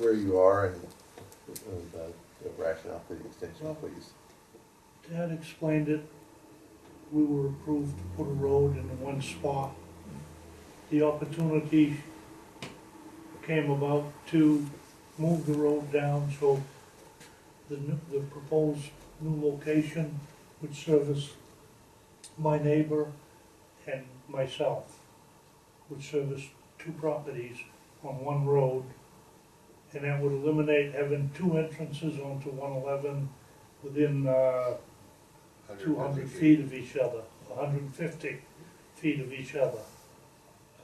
you are and and the the rationale for the extension, please. Dad explained it, we were approved to put a road in one spot. The opportunity came about to move the road down, so the, new- the proposed new location would service my neighbor and myself, would service two properties on one road, and that would eliminate having two entrances onto one eleven within, uh, two hundred feet of each other, hundred and fifty feet of each other.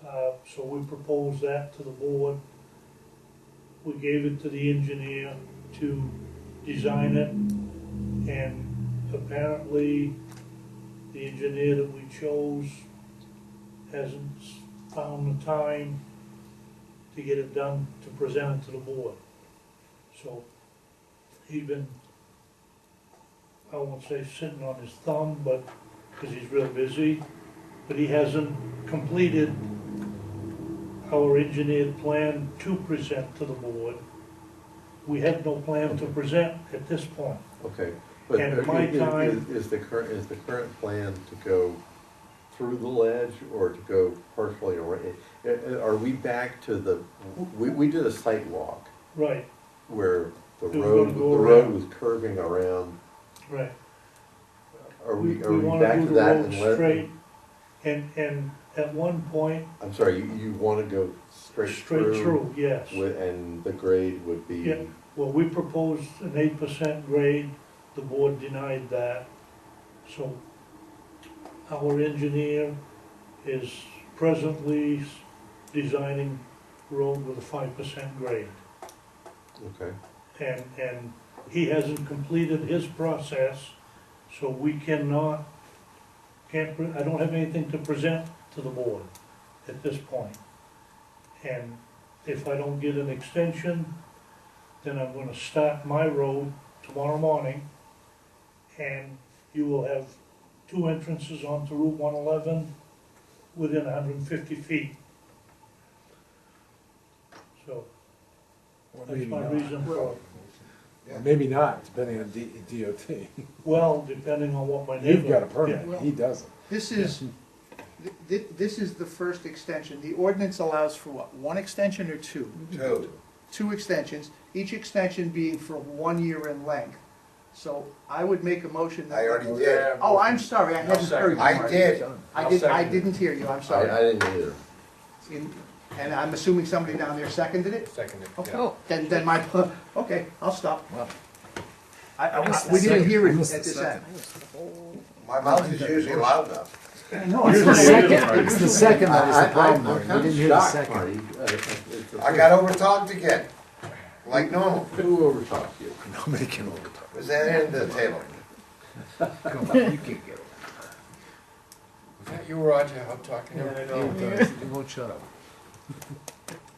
Uh, so we proposed that to the board. We gave it to the engineer to design it, and apparently, the engineer that we chose hasn't s- found the time to get it done, to present it to the board. So, he's been I won't say sitting on his thumb, but, because he's real busy, but he hasn't completed our engineered plan to present to the board. We have no plan to present at this point. Okay. but And at my is- is- time- Is the current, is the current plan to go through the ledge or to go partially around? Are we back to the, we, we did a site walk Right, where the It was road, gonna the go road around. was curving around. right. Are we, are We we want to back do to the that? road and let- straight, and, and at one point, I'm sorry, you, you wanna go straight straight through? through, yes. with- And the grade would Yeah. be, Well, we proposed an eight percent grade, the board denied that. So our engineer is presently s- designing road with a five percent grade. okay, And, and he hasn't completed his process, so we cannot, can't, pre- I don't have anything to present to the board at this point. And if I don't get an extension, then I'm gonna start my road tomorrow morning. And you will have two entrances onto Route one eleven within hundred and fifty feet. So, Or that's maybe my not. reason for it. Or Maybe not, depending on D- DOT. Well, depending on what my neighbor. You've got a permit, he doesn't. This is, th- th- this is the first extension. The ordinance allows for what, one extension or two? Two. Two extensions, each extension being for one year in length. So I would make a motion that. I already did. Oh, I'm sorry, I hadn't heard you. I Marty. did. I I'll did, I second it. didn't hear you, I'm I, I sorry. didn't either. In- And I'm assuming somebody down there seconded it? Seconded, yeah. Okay, then, then my, okay, I'll stop. Wow. I, I, missed the we didn't second. hear I it at missed the this end. My mouth is usually loud enough. I know, Here's it's the the second. second. It's It's the second that was I- the I- problem, I'm Marty. kinda We didn't hear the shocked, second. Marty. Uh, it's- it's a I got overtalked again, like normal. Who overtalked you? Nobody can over. Was that end of the table? Was that you, Roger, I'm talking? He won't shut up.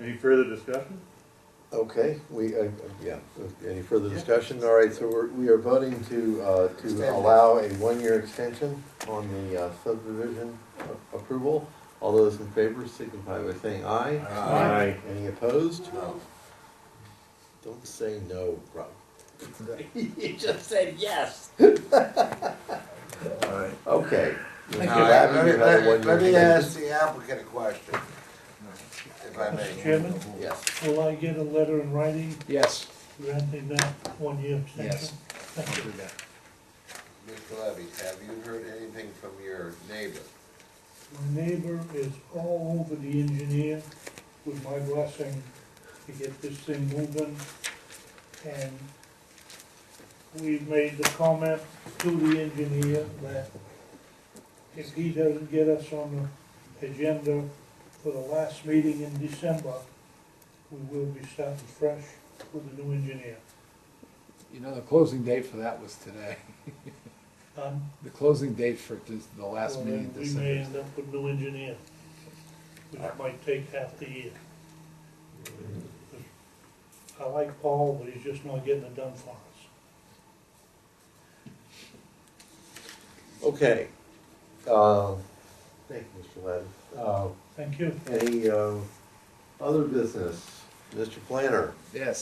Any further discussion? Okay, we, uh, yeah, any further discussion? All right, so we're, we are voting to, uh, Extend to it. allow a one-year extension on the uh, subdivision a- approval. All those in favor signify by saying aye. Aye. Any opposed? Don't say no, Rob. You just said yes. All right. Okay. Now, let me, let me- let me ask the applicant a question, if I Mr. may. Chairman, Yes. will I get a letter in writing Yes, granting that one-year extension? Yes. I'll do that. Mr. Levy, have you heard anything from your neighbor? My neighbor is all over the engineer with my blessing to get this thing moving. And we've made the comment to the engineer that if he doesn't get us on the agenda for the last meeting in December, we will be starting fresh with a new engineer. You know, the closing date for that was today. Um, The closing date for this- the last Well, meeting then We may this. end up with no engineer, which might take half the year. I like Paul, but he's just not getting it done for us. Okay. Uh, Thank you, Mr. Ladden. Uh, Thank you. Any uh, other business? Mr. Planner? Yes.